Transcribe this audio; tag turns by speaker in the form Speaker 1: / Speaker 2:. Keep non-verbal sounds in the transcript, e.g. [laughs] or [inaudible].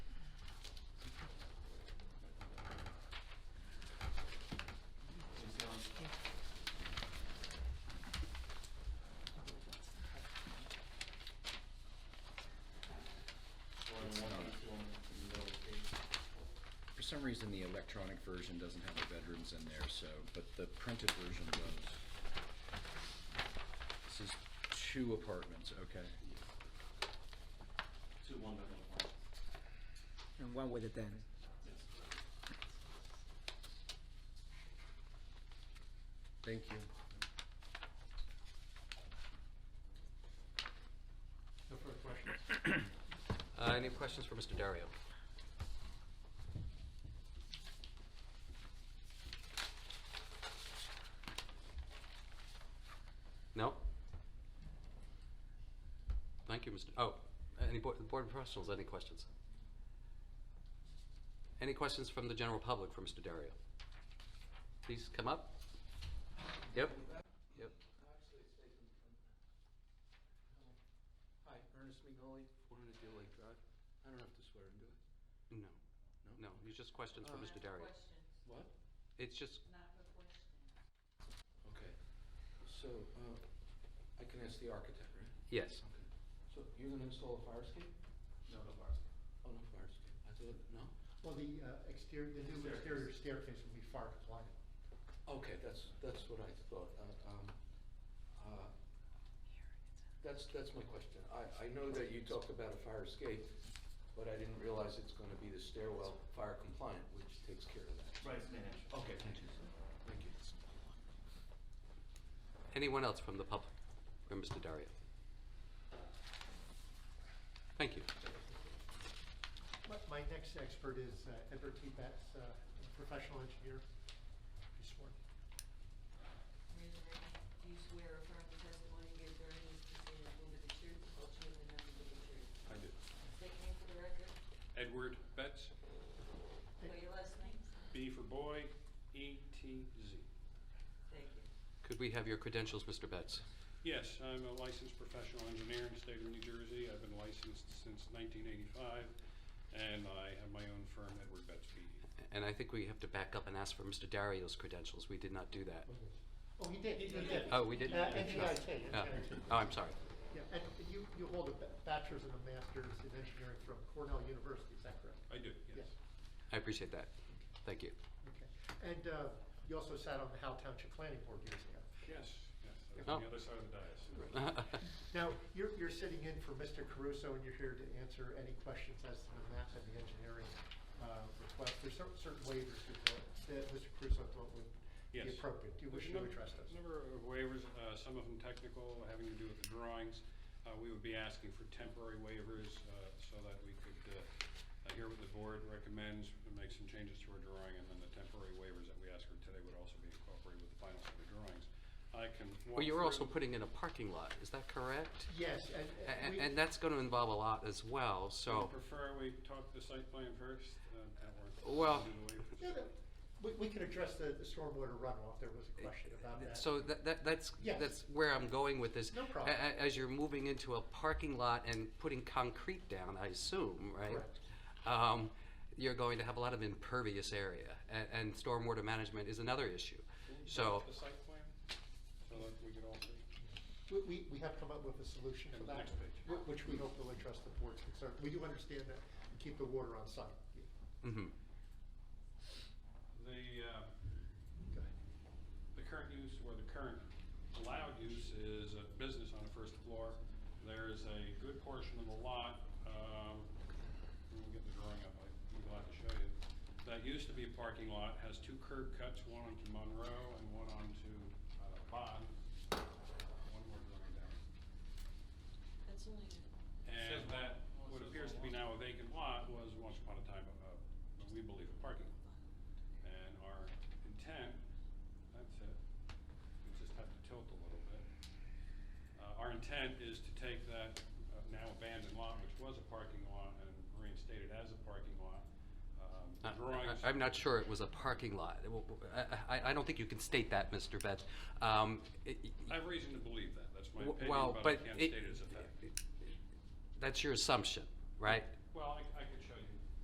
Speaker 1: some reason, the electronic version doesn't have the bedrooms in there, so, but the printed version does. This is two apartments, okay.
Speaker 2: Two one-bedroom apartments.
Speaker 3: and one with a den.
Speaker 2: Yes.
Speaker 1: Thank you.
Speaker 2: No further questions?
Speaker 4: Uh, Any questions for Mr. Dario? No? Thank you, Mr. Oh, any board board professionals, any questions? Any questions from the general public for Mr. Dario? Please come up. Yep, yep.
Speaker 5: Actually, it's taken from. um, Hi, Ernest Migoli, 400 Deal Lake Drive. I don't have to swear into it.
Speaker 4: No, no, it's just questions for
Speaker 5: Uh,
Speaker 4: Mr. Dario.
Speaker 6: Questions,
Speaker 5: What?
Speaker 4: It's just,
Speaker 6: not for questions.
Speaker 5: Okay. So, uh, I can ask the architect, right?
Speaker 4: yes.
Speaker 5: Okay. So you're gonna install a fire escape?
Speaker 2: No, no bars.
Speaker 5: Oh, no fire escape. I thought, no?
Speaker 7: Well, the uh, exterior, the new exterior staircase will be fire compliant.
Speaker 5: Okay, that's, that's what I thought. Uh, um, uh, That's, that's my question. I, I know that you talked about a fire escape, but I didn't realize it's gonna be the stairwell fire compliant, which takes care of that.
Speaker 2: Right, it's managed.
Speaker 5: Okay, thank you. Thank you.
Speaker 4: Anyone else from the public for Mr. Dario? Thank you.
Speaker 7: My- My next expert is uh, Edward T. Betts, uh, a professional engineer. Be sworn.
Speaker 6: Raise your right hand. Do you swear or affirm the testimony you give during this proceeding will be the truth, the whole truth, and nothing but the truth?
Speaker 8: I do.
Speaker 6: State your name for the record,
Speaker 8: Edward Betts,
Speaker 6: spell your last name.
Speaker 8: B for boy, E T Z.
Speaker 6: Thank you.
Speaker 4: Could we have your credentials, Mr. Betts?
Speaker 8: Yes, I'm a licensed professional engineer in the state of New Jersey. I've been licensed since 1985, and I have my own firm, Edward Betts PE.
Speaker 4: And I think we have to back up and ask for Mr. Dario's credentials. We did not do that.
Speaker 7: Oh, he did, he did.
Speaker 4: Oh, we did?
Speaker 7: Uh, NJIT,
Speaker 4: Oh,
Speaker 7: NJIT.
Speaker 4: Oh, I'm sorry.
Speaker 7: Yeah, and you, you hold a ba- bachelor's and a master's in engineering from Cornell University, is that correct?
Speaker 8: I do, yes.
Speaker 4: I appreciate that. Thank you. [laughs]
Speaker 7: Okay. And uh, you also sat on the Howe Township Planning Board years ago.
Speaker 8: Yes, yes, I was on
Speaker 4: Oh.
Speaker 8: the other side of the dais.
Speaker 7: Now, you're, you're sitting in for Mr. Caruso, and you're here to answer any questions as to the map and the engineering uh, request. There's cer- certain waivers we thought- that Mr. Caruso thought would be
Speaker 8: Yes.
Speaker 7: appropriate. Do you wish
Speaker 8: There's a
Speaker 7: to
Speaker 8: num-
Speaker 7: address those?
Speaker 8: Number of waivers, uh, some of them technical, having to do with the drawings. Uh, We would be asking for temporary waivers uh, so that we could uh, uh, hear what the board recommends, and make some changes to our drawing, and then the temporary waivers that we ask for today would also be incorporated with the final set of drawings. I can walk
Speaker 4: Well, you're also
Speaker 8: through-
Speaker 4: putting in a parking lot, is that correct?
Speaker 7: Yes, and-
Speaker 4: A-
Speaker 7: and. we-
Speaker 4: And that's going to involve a lot as well,
Speaker 8: I
Speaker 4: so,
Speaker 8: prefer we talk the site plan first. uh, that we're-
Speaker 4: Well-
Speaker 8: do the waivers.
Speaker 7: Yeah, no, We, we can address the the stormwater runoff. There was a question about that.
Speaker 4: so that, that- that's,
Speaker 7: Yes.
Speaker 4: that's where I'm going with this.
Speaker 7: No problem.
Speaker 4: A- a- As you're moving into a parking lot and putting concrete down, I assume, right?
Speaker 7: Correct.
Speaker 4: Um, You're going to have a lot of impervious area, a- and stormwater management is another issue.
Speaker 8: Can you
Speaker 4: So,
Speaker 8: talk The site plan, so that we could all see.
Speaker 7: We, we, we have come up with a solution for
Speaker 8: And the
Speaker 7: that,
Speaker 8: next page.
Speaker 7: wh- which we hope will address the board's concern. We do understand that we keep the water on site.
Speaker 4: mhm.
Speaker 8: The, uh,
Speaker 7: Go ahead.
Speaker 8: The current use or the current allowed use is a business on the first floor. There is a good portion of the lot, um, we'll get the drawing up, I'm glad to show you. That used to be a parking lot, has two curb cuts, one onto Monroe and one onto uh, Bond. One more drawing down.
Speaker 6: That's only,
Speaker 8: And that, what appears to be now a vacant lot was once upon a time, a- a- we believe, a parking lot. And our intent, that's it, we just have to tilt a little bit. Uh, Our intent is to take that uh, now abandoned lot, which was a parking lot, and reinstate it as a parking lot. Um, the
Speaker 4: I-
Speaker 8: Drawings.
Speaker 4: Uh, I- I'm not sure it was a parking lot. W- w- I I- I don't think you can state that, Mr. Betts. Um, it-
Speaker 8: I have reason to believe that, that's my
Speaker 4: W-
Speaker 8: opinion,
Speaker 4: well,
Speaker 8: but I
Speaker 4: but
Speaker 8: can't
Speaker 4: it-
Speaker 8: state it as a fact.
Speaker 4: That's your assumption, right?
Speaker 8: Well, I I could